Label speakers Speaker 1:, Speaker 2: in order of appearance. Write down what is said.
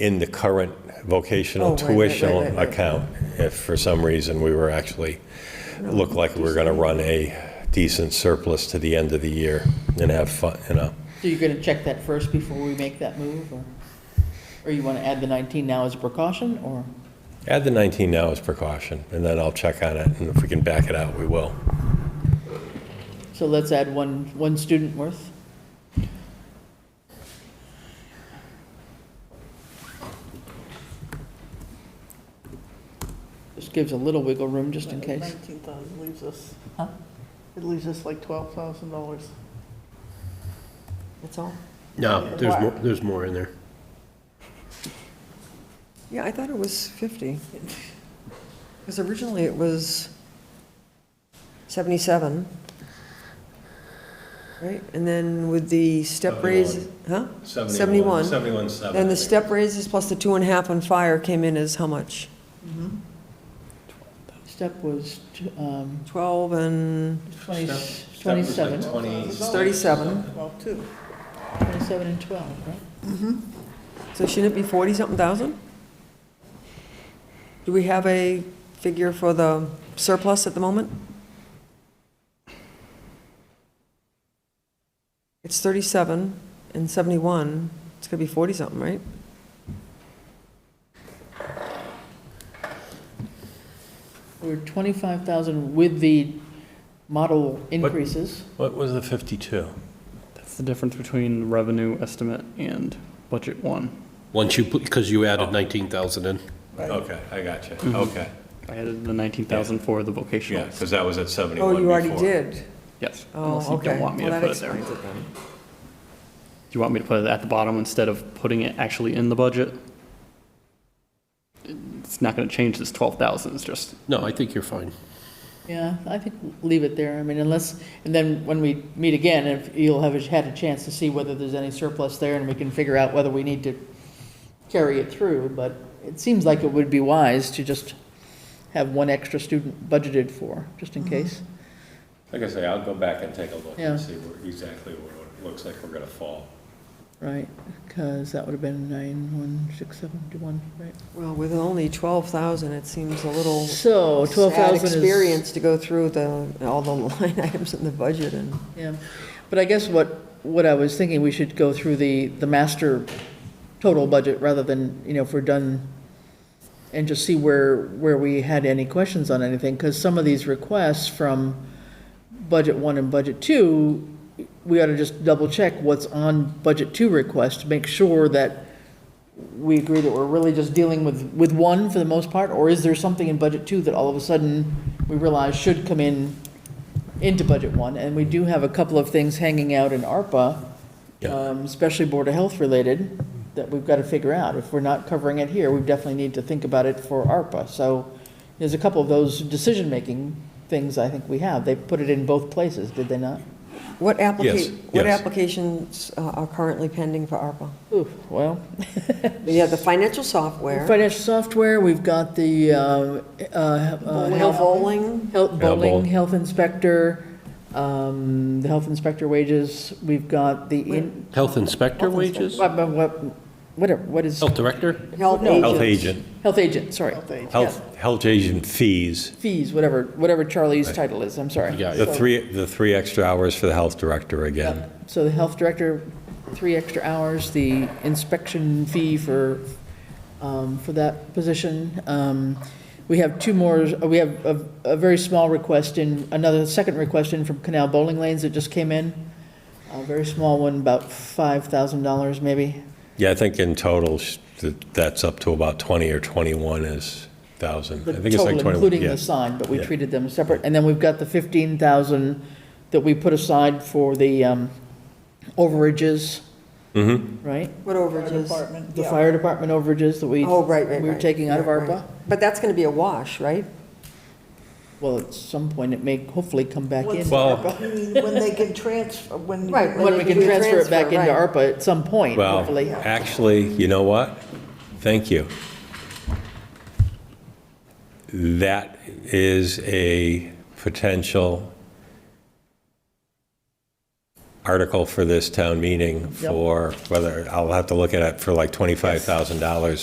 Speaker 1: in the current
Speaker 2: Oh,
Speaker 1: vocational
Speaker 2: right, right, right,
Speaker 1: tuition
Speaker 2: right, right.
Speaker 1: account. If for some reason we were actually, looked like we were going to run a decent surplus to the end of the year and have fun, you know.
Speaker 3: So you're gonna check that first before we make that move, or, or you wanna add the nineteen now as a precaution, or?
Speaker 1: Add the 19 now as precaution, and then I'll check on it, and if we can back it out, we will.
Speaker 3: So let's add one, one student worth? Just gives a little wiggle room just in case.
Speaker 2: Nineteen thousand leaves us,
Speaker 3: Huh?
Speaker 2: it leaves us like twelve thousand dollars.
Speaker 3: That's all?
Speaker 4: No, Oh, there's more, there's more in there.
Speaker 5: Yeah, I thought it was 50. Because originally it was 77. Right, and then with the step raise, huh? 71.
Speaker 1: 71,
Speaker 5: Then the step raises plus the two and a half on fire came in as how much?
Speaker 3: Step was, t- um,
Speaker 5: 12 and
Speaker 3: twenty, twenty-seven,
Speaker 2: It's
Speaker 5: 37.
Speaker 2: Well, two.
Speaker 3: twenty-seven and twelve, right?
Speaker 5: So shouldn't it be 40-something thousand? Do we have a figure for the surplus at the moment? It's 37 and 71, it's gonna be 40-something, right?
Speaker 3: We're twenty-five thousand with the model increases.
Speaker 1: What was the 52?
Speaker 6: That's the difference between revenue estimate and budget one.
Speaker 4: Once you, because you added 19,000 in.
Speaker 1: Okay, I got
Speaker 5: Mm-hmm.
Speaker 1: you, okay.
Speaker 6: I added the nineteen thousand for the
Speaker 1: Yeah,
Speaker 6: vocational.
Speaker 1: because that was at 71
Speaker 5: Oh, you already
Speaker 1: before.
Speaker 5: did.
Speaker 6: Yes.
Speaker 5: Oh,
Speaker 6: unless you
Speaker 5: okay.
Speaker 6: don't want me
Speaker 5: Well, that
Speaker 6: to put it there.
Speaker 5: explains
Speaker 6: Do
Speaker 5: it then.
Speaker 6: you want me to put it at the bottom instead of putting it actually in the budget? It's not gonna change this twelve thousand, it's just,
Speaker 4: No, I think you're fine.
Speaker 3: Yeah, I think leave it there, I mean, unless, and then when we meet again, if you'll have had a chance to see whether there's any surplus there, and we can figure out whether we need to carry it through, but it seems like it would be wise to just have one extra student budgeted for, just in case.
Speaker 1: Like I say, I'll go back and take a look
Speaker 3: Yeah.
Speaker 1: and see where- exactly what it looks like we're going to fall.
Speaker 3: Right, because that would have been nine, one, six, seven, two, one, right?
Speaker 5: Well, with only 12,000, it seems a little
Speaker 3: So twelve
Speaker 5: sad
Speaker 3: thousand is.
Speaker 5: experience to go through the, all the line items in the budget and.
Speaker 3: Yeah, but I guess what, what I was thinking, we should go through the, the master total budget rather than, you know, if we're done, and just see where, where we had any questions on anything, because some of these requests from budget one and budget two, we ought to just double check what's on budget two request to make sure that we agree that we're really just dealing with, with one for the most part, or is there something in budget two that all of a sudden we realize should come in into budget one, and we do have a couple of things hanging out in ARPA,
Speaker 1: Yeah.
Speaker 3: um, especially Board of Health related, that we've got to figure out. If we're not covering it here, we definitely need to think about it for ARPA. So there's a couple of those decision-making things I think we have. They put it in both places, did they not?
Speaker 5: What
Speaker 1: Yes,
Speaker 5: applica, what
Speaker 1: yes.
Speaker 5: applications uh, are currently pending for ARPA?
Speaker 3: Ooh, well,
Speaker 5: We have the financial software,
Speaker 3: financial software, we've got the, uh, uh, uh,
Speaker 5: Will
Speaker 3: health,
Speaker 5: Bowling,
Speaker 3: health- bowling,
Speaker 1: bowling.
Speaker 3: health inspector, um, the health inspector wages, we've got the, in-
Speaker 4: Health inspector wages?
Speaker 3: what, what- what, whatever, what is?
Speaker 4: Health director?
Speaker 5: health
Speaker 3: No.
Speaker 1: Health
Speaker 5: agents.
Speaker 1: agent,
Speaker 3: Health agent, sorry.
Speaker 1: health, health agent fees,
Speaker 3: Fees, whatever, whatever Charlie's title is, I'm sorry.
Speaker 4: Yeah,
Speaker 1: the three, the three extra hours for the health director again.
Speaker 3: So the health director, three extra hours, the inspection fee for, um, for that position. Um, We have two more, uh, we have a, a very small request in, another second request in from Canal Bowling Lanes that just came in. A very small one, about $5,000 maybe.
Speaker 1: Yeah, I think in total, sh- that- that's up to about 20 or 21 is 1,000. I
Speaker 3: The
Speaker 1: think it's like
Speaker 3: total,
Speaker 1: 21.
Speaker 3: including
Speaker 1: yeah.
Speaker 3: the sign, but we
Speaker 1: Yeah.
Speaker 3: treated them separate. And then we've got the 15,000 that we put aside for the um, overages.
Speaker 1: Mm-hmm.
Speaker 3: Right?
Speaker 5: What overages?
Speaker 2: Department,
Speaker 3: The
Speaker 2: yeah.
Speaker 3: fire department overages that we.
Speaker 5: Oh, right, right, right.
Speaker 3: We were taking out of
Speaker 5: Right, right.
Speaker 3: ARPA.
Speaker 5: But that's going to be a wash, right?
Speaker 3: Well, at some point, it may hopefully come back in.
Speaker 2: What's-
Speaker 1: Well-
Speaker 2: You mean When they can transfer, when.
Speaker 5: Right,
Speaker 3: When we can transfer it back into
Speaker 5: right.
Speaker 3: ARPA at some point,
Speaker 1: Well,
Speaker 3: hopefully.
Speaker 1: actually, you know what? Thank you. That is a potential article for this town meeting
Speaker 3: Yep.
Speaker 1: for whether, I'll have to look at it for like $25,000